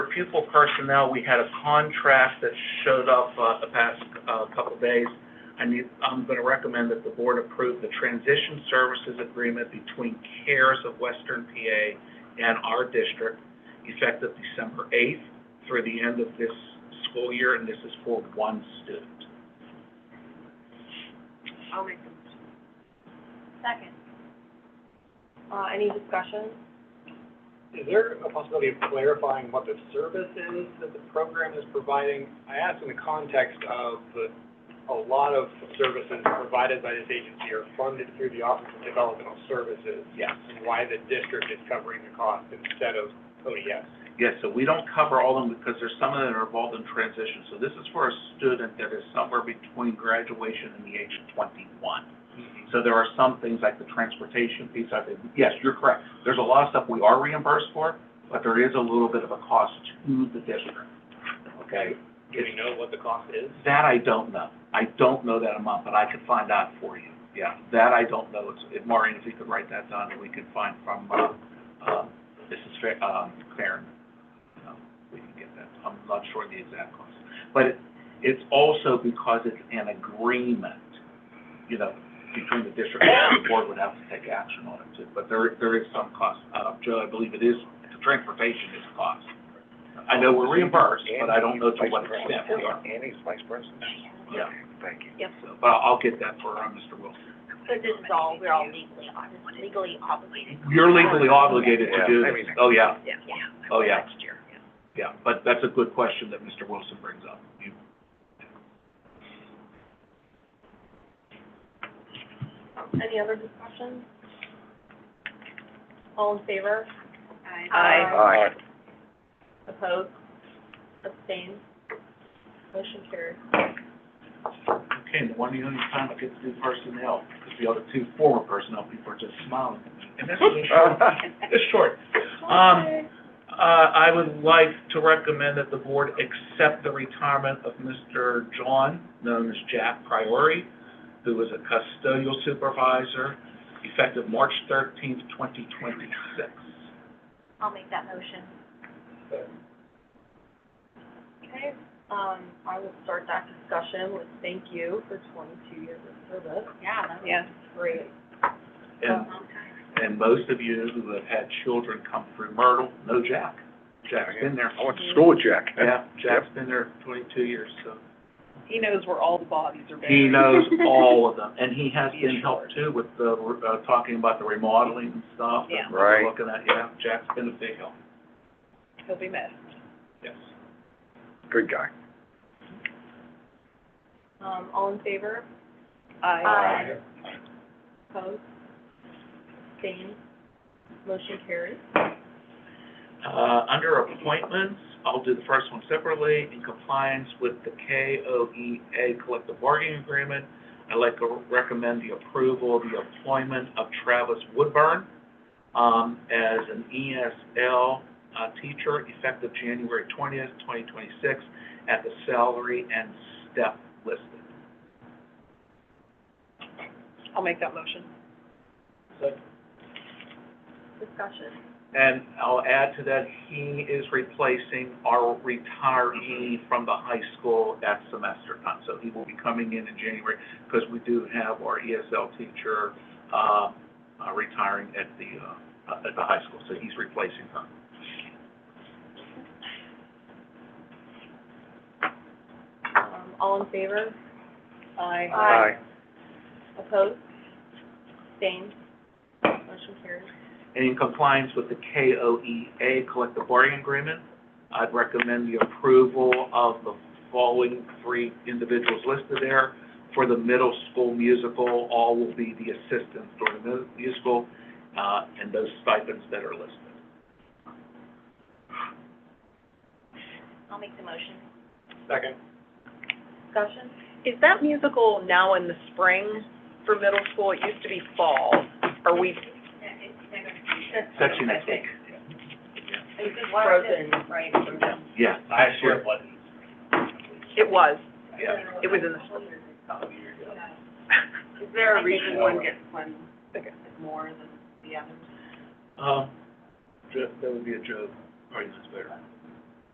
pupil personnel, we had a contract that showed up uh, the past uh, couple days. I need, I'm going to recommend that the board approve the transition services agreement between CARES of Western PA and our district effective December 8th through the end of this school year, and this is for one student. I'll make the motion. Second. Uh, any discussion? Is there a possibility of clarifying what the service is that the program is providing? I ask in the context of the- a lot of services provided by this agency are funded through the Office of Developmental Services, Yes. and why the district is covering the cost instead of E ODS. Yes, so we don't cover all of them because there's some of them that are involved in transition. So this is for a student that is somewhere between graduation and the age of 21. So there are some things like the transportation piece, I think, yes, you're correct. There's a lot of stuff we are reimbursed for, but there is a little bit of a cost to the district, okay? Do we know what the cost is? That I don't know. I don't know that amount, but I could find out for you. Yeah, that I don't know. It's- If Maureen, if you could write that down, and we could find from, uh, um, Mrs. Fa- um, Claren. um, We can get that. I'm not sure the exact cost. But it- it's also because it's an agreement, you know, between the district and the board would have to take action on it too. But there, there is some cost. Uh, Joe, I believe it is, the transportation is a cost. I know we're reimbursed, but I don't know to what extent we are. Annie's vice president. Yeah. Thank you. So, But I'll, I'll get that for uh, Mr. Wilson. So this is all, we're all legally, ob- legally obligated. You're legally obligated to do Yeah. this. Oh, yeah, Yeah. Yeah. Oh, yeah. Next year. yeah. But that's a good question that Mr. Wilson brings up. You- Any other discussion? All in favor? Uh, Aye. Aye. Opposed? Abstained? Motion carried. Okay, and the one and only time I get to do personnel, because the other two former personnel people are just smiling. And this is short, this is short. Um, Uh, I would like to recommend that the board accept the retirement of Mr. John, known as Jack Priori, who was a custodial supervisor, effective March thirteenth, twenty twenty-six. I'll make that motion. Okay, um, I will start that discussion with thank you for twenty-two years of service. Yeah, that Yeah. Great. And, and most of you who have had children come through Myrtle know Jack. Jack's been there. I went to school with Jack. Yeah, Jack's been there twenty-two years, so. He knows where all the bodies are buried. He knows all of them, and he has been helped too with the, uh, talking about the remodeling and stuff. and Yeah. Right. Looking at, yeah, Jack's been a big help, He'll be missed. yes. Good guy. Um, all in favor? Aye. Opposed? Abstained? Motion carried. Uh, under appointments, I'll do the first one separately, in compliance with the KOEA collective bargaining agreement, I'd like to recommend the approval of the employment of Travis Woodburn, um, as an ESL, uh, teacher effective January twentieth, twenty twenty-six, at the salary and step listed. I'll make that motion. Discussion. And I'll add to that, he is replacing our retiree from the high school at semester time. So he will be coming in in January because we do have our ESL teacher, um, uh, retiring at the, uh, at the high school. So he's replacing her. Um, all in favor? Aye. Aye. Opposed? Abstained? Motion carried. And in compliance with the KOEA collective bargaining agreement, I'd recommend the approval of the following three individuals listed there. For the middle school musical, all will be the assistants during the mu- musical, uh, and those stipends that are listed. I'll make the motion. Second. Discussion? Is that musical now in the spring for middle school? It used to be fall. Are we Section next week. It's just frozen? right? Yeah. Last year it wasn't. It was. Yeah. It was in the spring. Is there a reason one gets one Okay. more than the other? Um, Jo- that would be a joke. Probably knows better.